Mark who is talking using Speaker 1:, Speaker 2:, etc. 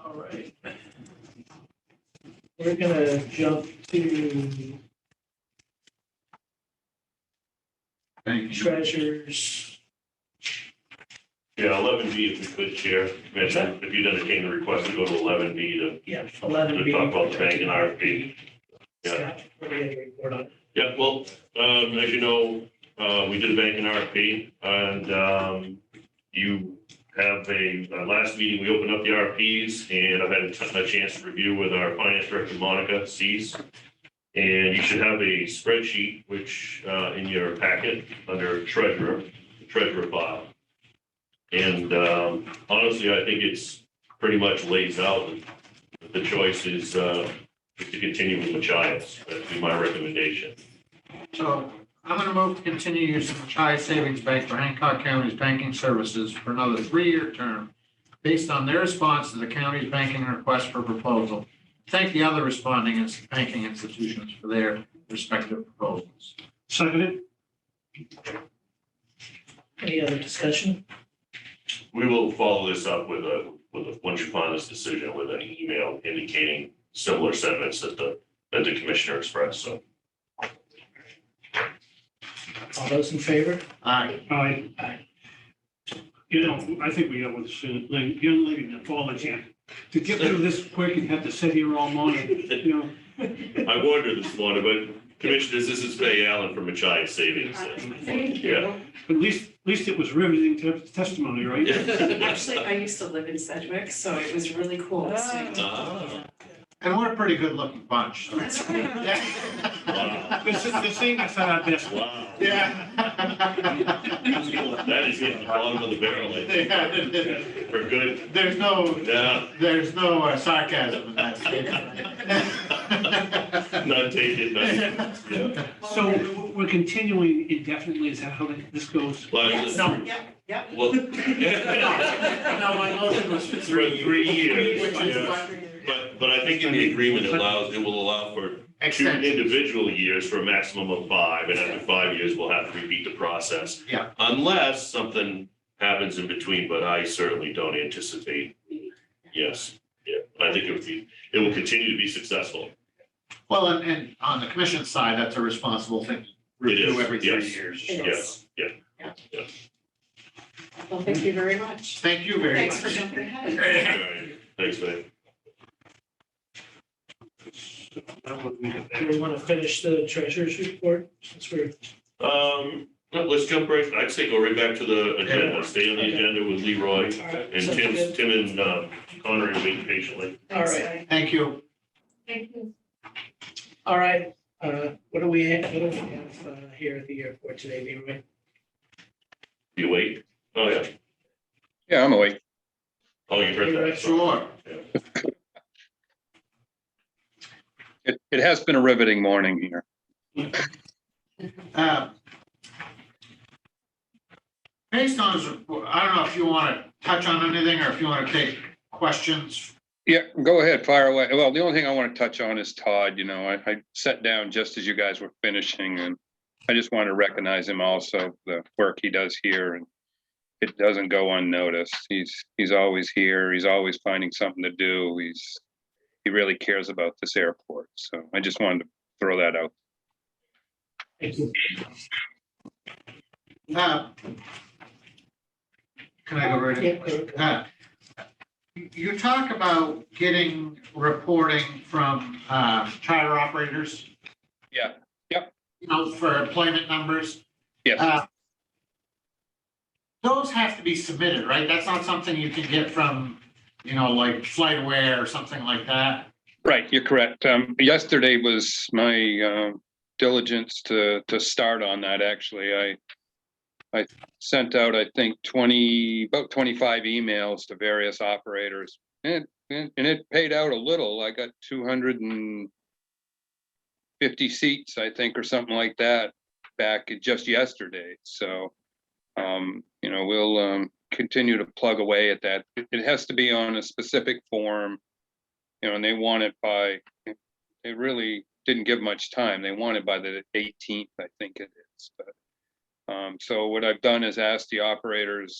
Speaker 1: All right. We're gonna jump to
Speaker 2: Thank you.
Speaker 1: treasures.
Speaker 3: Yeah, eleven B if we could, Chair, Commissioner, if you'd entertain the request to go to eleven B to
Speaker 1: Yeah, eleven
Speaker 3: to
Speaker 1: B.
Speaker 3: talk about the bank and RFP. yeah.
Speaker 1: Scott, what do you have to report on?
Speaker 3: Yeah, well, um, as you know, uh, we did a banking RFP and, um, you have a, uh, last meeting, we opened up the RFPs and I've had a ton- a chance to review with our finance director, Monica Sees. And you should have a spreadsheet, which, uh, in your packet, under treasurer, treasurer file. And, um, honestly, I think it's pretty much lays out, the choice is, uh, to continue with Machias. That'd be my recommendation.
Speaker 2: So I'm going to move to continue use of Chi Savings Bank for Hancock County's banking services for another three-year term based on their response to the county's banking request for proposal. Thank the other responding ins- banking institutions for their respective proposals.
Speaker 4: Seconded.
Speaker 1: Any other discussion?
Speaker 3: We will follow this up with a, with a, once you find this decision, with an email indicating similar sentiments that the, that the commissioner expressed, so.
Speaker 1: All those in favor?
Speaker 2: Aye.
Speaker 4: Aye.
Speaker 1: Aye.
Speaker 4: You know, I think we know what this is, like, young lady that falls in. To get through this quick and have to sit here all morning, you know,
Speaker 3: I wondered this morning, but commissioners, this is Fay Allen from Machias Savings.
Speaker 5: Thank you.
Speaker 4: but at least, at least it was riveting te- testimony, right?
Speaker 5: Actually, I used to live in Sedgwick, so it was really cool listening to.
Speaker 3: Ah.
Speaker 2: And we're a pretty good-looking bunch.
Speaker 5: That's right.
Speaker 2: Yeah.
Speaker 3: Wow.
Speaker 4: This is, this ain't the side our best.
Speaker 3: Wow.
Speaker 2: Yeah.
Speaker 3: That is hitting the bottom of the barrel, I think.
Speaker 2: Yeah.
Speaker 3: for good,
Speaker 2: There's no,
Speaker 3: yeah,
Speaker 2: There's no uh, sarcasm in that statement.
Speaker 3: not taken, not, yeah.
Speaker 4: So we're- we're continuing indefinitely, is that how this goes?
Speaker 3: Like,
Speaker 5: Yes, yep, yep.
Speaker 3: Well.
Speaker 2: No, my motion was for
Speaker 3: For three years,
Speaker 2: Which is
Speaker 3: yeah.
Speaker 2: what-
Speaker 3: But, but I think in the agreement it allows, it will allow for two
Speaker 2: Extension,
Speaker 3: individual years for a maximum of five, and after five years, we'll have to repeat the process.
Speaker 2: Yeah.
Speaker 3: Unless something happens in between, but I certainly don't anticipate, yes, yeah, I think it would be, it will continue to be successful.
Speaker 2: well, and, and on the commission side, that's a responsible thing, to
Speaker 3: It is,
Speaker 2: review every three
Speaker 3: yes.
Speaker 2: years.
Speaker 5: It
Speaker 2: so.
Speaker 3: Yes, yeah, yeah.
Speaker 5: Well, thank you very much.
Speaker 2: Thank you very
Speaker 5: Thanks for
Speaker 2: much.
Speaker 5: jumping ahead.
Speaker 3: All right. Thanks, man.
Speaker 1: Do we want to finish the treasurer's report since we're,
Speaker 3: Um, no, let's jump right, I'd say go right back to the agenda, stay on the agenda with Leroy
Speaker 1: all right?
Speaker 3: and
Speaker 1: sounds
Speaker 3: Tim,
Speaker 1: good.
Speaker 3: Tim and um, Connery waiting patiently.
Speaker 1: All right.
Speaker 2: Thank you.
Speaker 5: Thank you.
Speaker 1: All right, uh, what do we, have- what do we have uh, here at the airport today, Leroy?
Speaker 3: You wait? Oh, yeah.
Speaker 6: Yeah, I'm awake.
Speaker 3: Oh, you heard that.
Speaker 2: Sure.
Speaker 6: It, it has been a riveting morning here.
Speaker 2: Uh, Based on his report, I don't know if you want to touch on anything or if you want to take questions.
Speaker 6: Yeah, go ahead, fire away. Well, the only thing I want to touch on is Todd, you know, I, I sat down just as you guys were finishing and I just want to recognize him also, the work he does here and it doesn't go unnoticed. He's, he's always here. He's always finding something to do. He's, he really cares about this airport. So I just wanted to throw that out.
Speaker 1: Thank you.
Speaker 2: Uh, Can I go right in?
Speaker 1: Yeah, go- go.
Speaker 2: Uh, You talk about getting reporting from uh, charter operators.
Speaker 6: Yeah, yep.
Speaker 2: You know, for employment numbers.
Speaker 6: Yes.
Speaker 2: Uh, Those have to be submitted, right? That's not something you can get from, you know, like Flightware or something like that.
Speaker 6: Right, you're correct. Um, yesterday was my um diligence to to start on that, actually. I I sent out, I think, twenty, about twenty-five emails to various operators. And and and it paid out a little. I got two hundred and fifty seats, I think, or something like that back just yesterday. So um, you know, we'll um continue to plug away at that. It- It has to be on a specific form you know, and they want it by, they really didn't give much time. They want it by the eighteenth, I think it is, but Um, so what I've done is asked the operators